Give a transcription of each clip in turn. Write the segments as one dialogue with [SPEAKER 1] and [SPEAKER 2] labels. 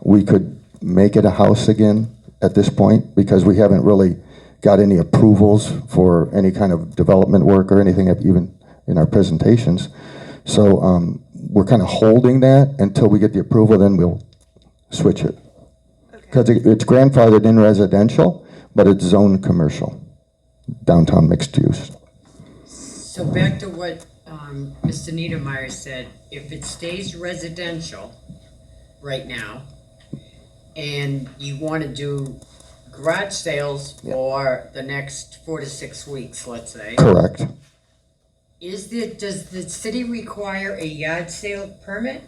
[SPEAKER 1] we could make it a house again at this point, because we haven't really got any approvals for any kind of development work or anything, even in our presentations. So um, we're kind of holding that until we get the approval, then we'll switch it. Because it's grandfathered in residential, but it's zoned commercial, downtown mixed use.
[SPEAKER 2] So back to what um, Mr. Niedermeyer said, if it stays residential right now, and you want to do garage sales for the next four to six weeks, let's say,
[SPEAKER 1] Correct.
[SPEAKER 2] is the, does the city require a yard sale permit?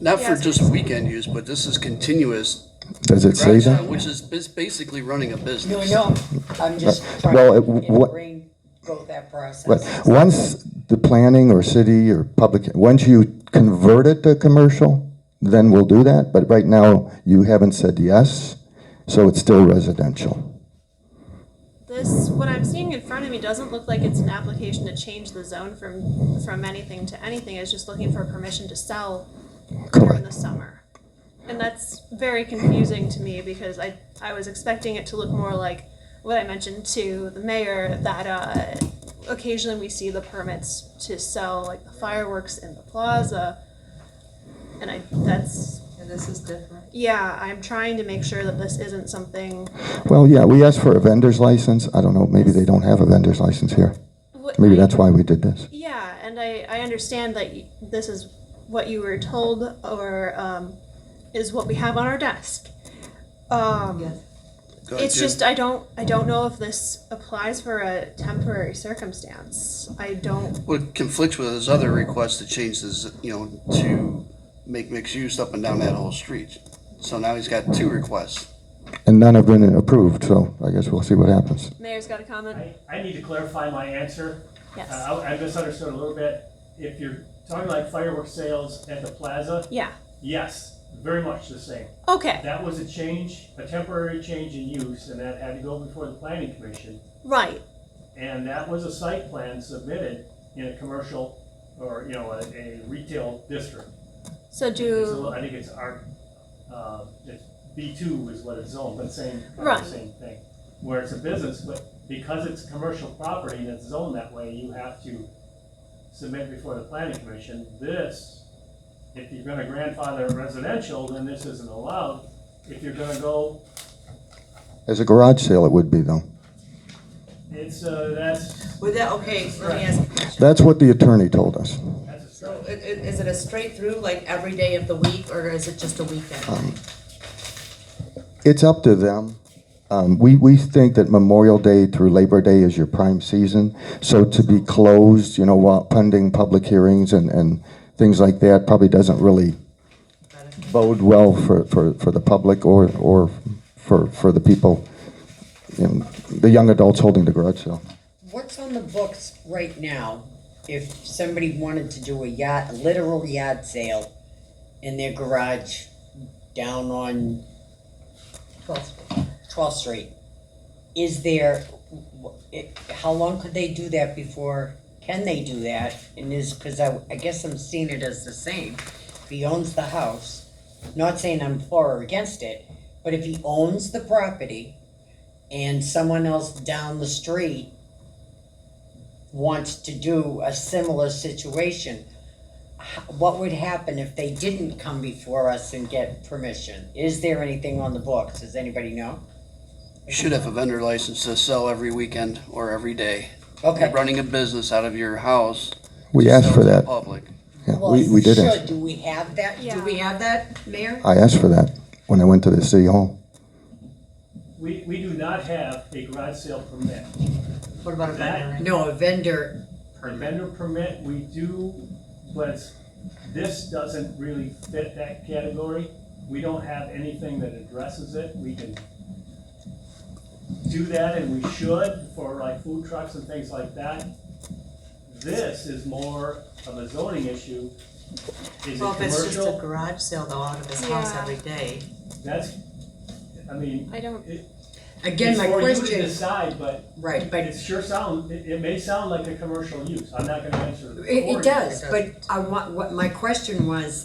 [SPEAKER 3] Not for just weekend use, but this is continuous,
[SPEAKER 1] Does it say
[SPEAKER 3] garage sale,
[SPEAKER 1] that?
[SPEAKER 3] which is bas- basically running a
[SPEAKER 2] No,
[SPEAKER 3] business.
[SPEAKER 2] no, I'm just trying
[SPEAKER 1] well,
[SPEAKER 2] to
[SPEAKER 1] it- what-
[SPEAKER 2] bring, go that
[SPEAKER 1] But
[SPEAKER 2] process.
[SPEAKER 1] once the planning or city or public, once you convert it to commercial, then we'll do that. But right now, you haven't said yes, so it's still residential.
[SPEAKER 4] This, what I'm seeing in front of me doesn't look like it's an application to change the zone from, from anything to anything. It's just looking for permission to sell during the
[SPEAKER 1] Correct.
[SPEAKER 4] summer. And that's very confusing to me because I, I was expecting it to look more like what I mentioned to the mayor, that, uh, occasionally we see the permits to sell like the fireworks in the plaza. And I, that's,
[SPEAKER 5] And this is different.
[SPEAKER 4] yeah, I'm trying to make sure that this isn't something.
[SPEAKER 1] Well, yeah, we asked for a vendor's license. I don't know, maybe they don't have a vendor's license here.
[SPEAKER 4] what-
[SPEAKER 1] Maybe that's why we did this.
[SPEAKER 4] Yeah, and I, I understand that y- this is what you were told or um, is what we have on our desk. Um,
[SPEAKER 5] Yes.
[SPEAKER 3] Go ahead,
[SPEAKER 4] It's
[SPEAKER 3] Jim.
[SPEAKER 4] just I don't I don't know if this applies for a temporary circumstance. I don't.
[SPEAKER 3] What conflicts with his other request to change this, you know, to make mixed use up and down that whole street. So now he's got two requests.
[SPEAKER 1] And none have been approved, so I guess we'll see what happens.
[SPEAKER 4] Mayor's got a comment.
[SPEAKER 6] I, I need to clarify my answer.
[SPEAKER 4] Yes.
[SPEAKER 6] Uh, I I misunderstood a little bit. If you're talking like fireworks sales at the plaza,
[SPEAKER 4] yeah.
[SPEAKER 6] yes, very much the same.
[SPEAKER 4] Okay.
[SPEAKER 6] That was a change, a temporary change in use, and that had to go before the planning commission.
[SPEAKER 4] Right.
[SPEAKER 6] And that was a site plan submitted in a commercial or, you know, a, a retail district.
[SPEAKER 4] So
[SPEAKER 6] It's a little-
[SPEAKER 4] do
[SPEAKER 6] I think it's our, uh, it's B two is what it's zoned, but same, kind of
[SPEAKER 4] Right.
[SPEAKER 6] the same thing. Where it's a business, but because it's commercial property and it's zoned that way, you have to submit before the planning commission. This, if you're gonna grandfather residential, then this isn't allowed. If you're gonna go,
[SPEAKER 1] As a garage sale, it would be though.
[SPEAKER 6] it's, uh, that's,
[SPEAKER 5] Would that, okay, let me ask a question.
[SPEAKER 1] That's what the attorney told us.
[SPEAKER 6] that's a
[SPEAKER 5] So
[SPEAKER 6] stretch.
[SPEAKER 5] i- i- is it a straight through, like every day of the week, or is it just a weekend?
[SPEAKER 1] Um, It's up to them. Um, we, we think that Memorial Day through Labor Day is your prime season. So to be closed, you know, while pending public hearings and, and things like that probably doesn't really bode well for, for, for the public or, or for, for the people, you know, the young adults holding the garage sale.
[SPEAKER 2] What's on the books right now if somebody wanted to do a yacht, a literal yacht sale in their garage down on
[SPEAKER 5] Twelve.
[SPEAKER 2] 12th Street? Is there, wh- it- how long could they do that before, can they do that? And is, because I, I guess I'm seeing it as the same. If he owns the house, not saying I'm for or against it, but if he owns the property and someone else down the street wants to do a similar situation, h- what would happen if they didn't come before us and get permission? Is there anything on the books? Does anybody know?
[SPEAKER 3] You should have a vendor license to sell every weekend or every day. You're
[SPEAKER 2] Okay.
[SPEAKER 3] running a business out of your house.
[SPEAKER 1] We
[SPEAKER 3] to
[SPEAKER 1] asked
[SPEAKER 3] sell
[SPEAKER 1] for
[SPEAKER 3] to the
[SPEAKER 1] that.
[SPEAKER 3] Public.
[SPEAKER 1] Yeah,
[SPEAKER 2] Well,
[SPEAKER 1] we, we did
[SPEAKER 2] sure.
[SPEAKER 1] ask.
[SPEAKER 2] Do we have that? Do
[SPEAKER 4] Yeah.
[SPEAKER 2] we have that, Mayor?
[SPEAKER 1] I asked for that when I went to the city hall.
[SPEAKER 6] We, we do not have a garage sale permit.
[SPEAKER 5] What about a vendor?
[SPEAKER 2] No, a vendor
[SPEAKER 6] A
[SPEAKER 2] permit.
[SPEAKER 6] vendor permit, we do, but this doesn't really fit that category. We don't have anything that addresses it. We can do that and we should for like food trucks and things like that. This is more of a zoning issue. Is it
[SPEAKER 5] Well, if it's just a
[SPEAKER 6] commercial?
[SPEAKER 5] garage sale though, out of his house
[SPEAKER 4] Yeah.
[SPEAKER 5] every day.
[SPEAKER 6] That's, I mean,
[SPEAKER 4] I don't.
[SPEAKER 2] Again,
[SPEAKER 6] it's
[SPEAKER 2] my
[SPEAKER 6] for you to
[SPEAKER 2] question,
[SPEAKER 6] decide, but
[SPEAKER 2] right, but
[SPEAKER 6] it sure sound, it, it may sound like a commercial use. I'm not gonna answer. for
[SPEAKER 2] it,
[SPEAKER 6] you
[SPEAKER 2] it does,
[SPEAKER 6] because-
[SPEAKER 2] but I want, what, my question was,